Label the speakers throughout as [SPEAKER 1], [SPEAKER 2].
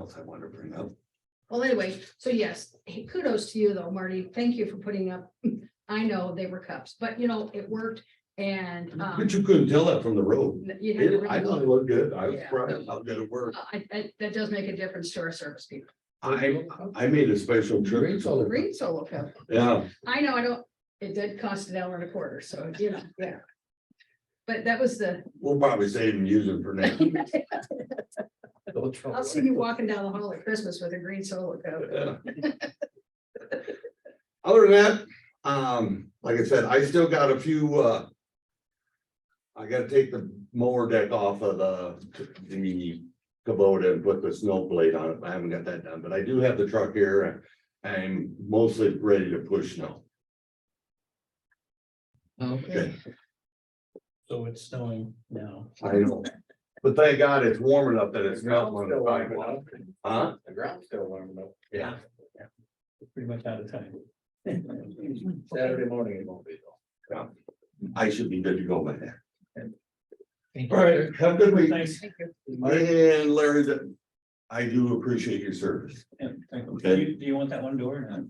[SPEAKER 1] else I wanted to bring up.
[SPEAKER 2] Well, anyway, so yes, hey, kudos to you though, Marty. Thank you for putting up. I know they were cups, but you know, it worked and um,
[SPEAKER 1] But you couldn't tell that from the road.
[SPEAKER 2] you had to
[SPEAKER 1] It- I
[SPEAKER 2] really
[SPEAKER 1] thought
[SPEAKER 2] look.
[SPEAKER 1] it looked good. I was
[SPEAKER 2] Yeah.
[SPEAKER 1] surprised how good it worked.
[SPEAKER 2] I, I, that does make a difference to our service people.
[SPEAKER 1] I, I made a special trip.
[SPEAKER 3] Great solar.
[SPEAKER 2] Green solo cup.
[SPEAKER 1] Yeah,
[SPEAKER 2] I know, I don't, it did cost an hour and a quarter, so you know, yeah. But that was the,
[SPEAKER 1] we'll probably save and use them for next.
[SPEAKER 3] Don't throw
[SPEAKER 2] I'll see
[SPEAKER 3] away.
[SPEAKER 2] you walking down the hall at Christmas with a green solo cup.
[SPEAKER 1] Yeah. Other than that, um, like I said, I still got a few, uh. I gotta take the mower deck off of the, the Kubota and put the snow blade on it. I haven't got that done, but I do have the truck here. and I'm mostly ready to push snow.
[SPEAKER 3] Okay.
[SPEAKER 1] Okay.
[SPEAKER 3] So it's snowing now.
[SPEAKER 1] I know. But thank God it's warm enough that it's not one of the, huh?
[SPEAKER 3] The ground's still warm enough.
[SPEAKER 1] Yeah.
[SPEAKER 3] Pretty much out of time.
[SPEAKER 4] Mm.
[SPEAKER 3] Saturday morning it won't be though.
[SPEAKER 1] I should be good to go by then.
[SPEAKER 3] Thank
[SPEAKER 1] All right, have a good week.
[SPEAKER 3] Thanks.
[SPEAKER 2] Thank you.
[SPEAKER 1] And Larry, that- I do appreciate your service.
[SPEAKER 3] Yeah, thank you.
[SPEAKER 1] Okay.
[SPEAKER 3] Do you, do you want that one door or not?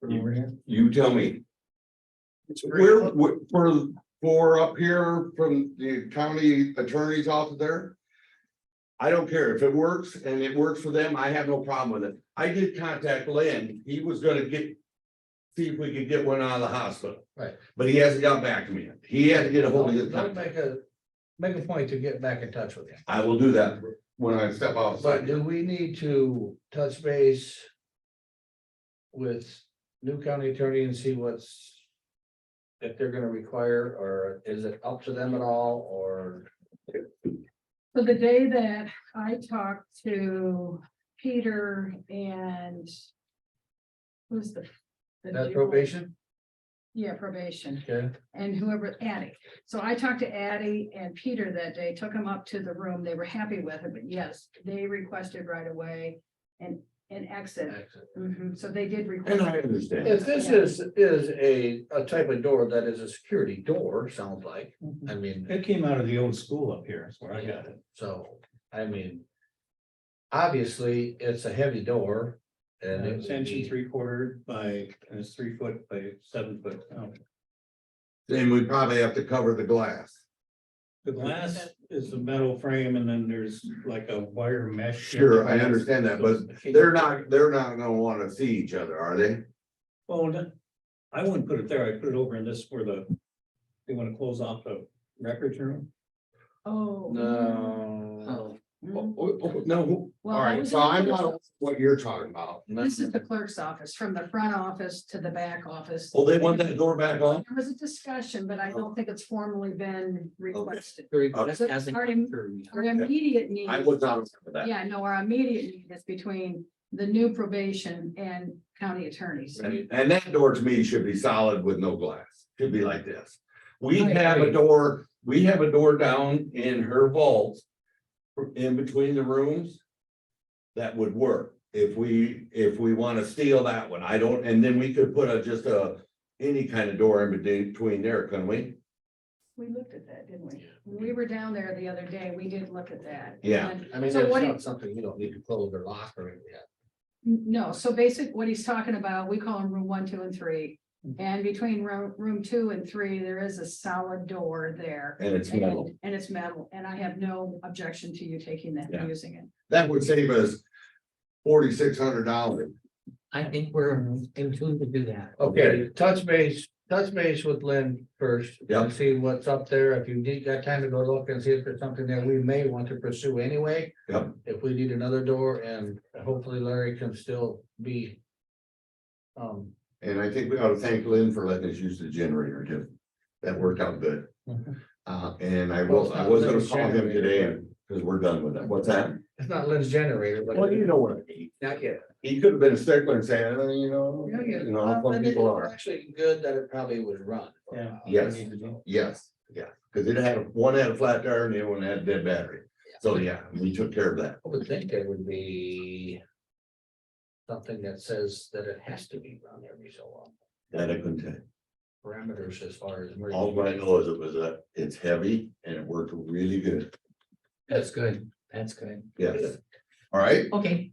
[SPEAKER 3] From
[SPEAKER 4] Mm.
[SPEAKER 3] over here?
[SPEAKER 1] You tell me. Where, where- for, for up here from the county attorney's office there? I don't care if it works and it works for them, I have no problem with it. I did contact Lynn, he was gonna get. See if we could get one out of the hospital.
[SPEAKER 4] Right.
[SPEAKER 1] But he hasn't got back to me. yet. He had to get a hold of his
[SPEAKER 4] Don't
[SPEAKER 1] contact.
[SPEAKER 4] Make a, make a point to get back in touch with you.
[SPEAKER 1] I will do that when I step outside.
[SPEAKER 4] But do we need to touch base? With new county attorney and see what's. If they're gonna require, or is it up to them at all, or?
[SPEAKER 2] So the day that I talked to Peter and. Who's the? the
[SPEAKER 4] That's
[SPEAKER 2] dual-
[SPEAKER 4] probation?
[SPEAKER 2] Yeah, probation
[SPEAKER 4] Okay.
[SPEAKER 2] and whoever, Addie. So I talked to Addie and Peter that day, took them up to the room. They were happy with it, but yes, they requested right away and an exit. Mhm, so they did
[SPEAKER 1] And
[SPEAKER 2] request.
[SPEAKER 1] I understand.
[SPEAKER 4] If this is, is a, a type of door that is a security door, sounds like,
[SPEAKER 2] Mm-hmm.
[SPEAKER 4] I mean.
[SPEAKER 3] It came out of the old school up here, is where I got it.
[SPEAKER 4] So, I mean. Obviously, it's a heavy door and it
[SPEAKER 3] It's
[SPEAKER 4] would
[SPEAKER 3] inch and
[SPEAKER 4] be-
[SPEAKER 3] three quarter by, and it's three foot by seven foot. Oh,
[SPEAKER 1] Then we probably have to cover the glass.
[SPEAKER 3] The glass is the metal frame and then there's like a wire mesh.
[SPEAKER 1] Sure, I understand that, but They're not, they're not gonna wanna see each other, are they?
[SPEAKER 3] Well, no, I wouldn't put it there. I'd put it over in this where the, they want to close off the records room.
[SPEAKER 2] Oh.
[SPEAKER 4] No.
[SPEAKER 5] Oh,
[SPEAKER 2] Mm.
[SPEAKER 1] Oh, no.
[SPEAKER 2] Well,
[SPEAKER 1] All
[SPEAKER 2] I
[SPEAKER 1] right,
[SPEAKER 2] was
[SPEAKER 1] so
[SPEAKER 2] in the
[SPEAKER 1] I'm
[SPEAKER 2] clerk's
[SPEAKER 1] not
[SPEAKER 2] office.
[SPEAKER 1] what you're talking about.
[SPEAKER 2] This is the clerk's office, from the front office to the back office.
[SPEAKER 1] Well, they want that door back on?
[SPEAKER 2] There was a discussion, but I don't think it's formally been requested.
[SPEAKER 4] Very
[SPEAKER 1] Uh,
[SPEAKER 4] good.
[SPEAKER 2] So Our im- our immediate need.
[SPEAKER 1] I was not for that.
[SPEAKER 2] Yeah, no, our immediate need is between the new probation and county attorneys.
[SPEAKER 1] And and that door to me should be solid with no glass, should be like this. We
[SPEAKER 2] I
[SPEAKER 1] have a
[SPEAKER 4] agree.
[SPEAKER 1] door, we have a door down in her vault. In between the rooms. That would work if we, if we wanna steal that one, I don't, and then we could put a, just a. Any kind of door in between there, couldn't we?
[SPEAKER 2] We looked at that, didn't we? When We were down there the other day, we did look at that.
[SPEAKER 1] Yeah.
[SPEAKER 2] And,
[SPEAKER 4] I mean,
[SPEAKER 2] So
[SPEAKER 4] that's
[SPEAKER 2] what do
[SPEAKER 4] not something you don't need to close or lock or anything.
[SPEAKER 2] No, so basic, what he's talking about, we call them room one, two, and three.
[SPEAKER 1] Mm-hmm.
[SPEAKER 2] And between room, room two and three, there is a solid door there.
[SPEAKER 1] And it's metal.
[SPEAKER 2] And it's metal, and I have no objection to you taking that
[SPEAKER 1] Yeah.
[SPEAKER 2] and using it.
[SPEAKER 1] That would save us forty-six hundred dollars.
[SPEAKER 5] I think we're in tune to do that.
[SPEAKER 4] Okay, touch base, touch base with Lynn first. and
[SPEAKER 1] Yep.
[SPEAKER 4] See what's up there. If you need, got time to go look and see if there's something that we may want to pursue anyway.
[SPEAKER 1] Yep.
[SPEAKER 4] If we need another door and hopefully Larry can still be. Um,
[SPEAKER 1] And I think we ought to thank Lynn for letting us use the generator too. That worked out good.
[SPEAKER 3] Mhm.
[SPEAKER 1] Uh, and I
[SPEAKER 4] Well,
[SPEAKER 1] will,
[SPEAKER 4] it's
[SPEAKER 1] I
[SPEAKER 4] not
[SPEAKER 1] was gonna
[SPEAKER 4] Lynn's
[SPEAKER 1] call him
[SPEAKER 4] generator,
[SPEAKER 1] today because we're done with that. What's that?
[SPEAKER 4] it's not Lynn's generator, but.
[SPEAKER 1] know what I mean.
[SPEAKER 4] Not yet.
[SPEAKER 1] He could have been a stickler and saying, "Oh, you know,
[SPEAKER 4] Yeah, yeah.
[SPEAKER 1] you know, how some people are.
[SPEAKER 4] Actually, good that it probably was run.
[SPEAKER 3] Yeah.
[SPEAKER 1] Yes. Yes, yeah, because it had, one had a flat tire and the other one had a dead battery. So, yeah, we took care of that.
[SPEAKER 4] I would think there would be. Something that says that it has to be run every so often,
[SPEAKER 1] That I couldn't tell. you.
[SPEAKER 4] parameters as far as.
[SPEAKER 1] All I know is it was a, it's heavy and it worked really good.
[SPEAKER 5] That's good. That's good.
[SPEAKER 1] Yes. All right.
[SPEAKER 5] Okay.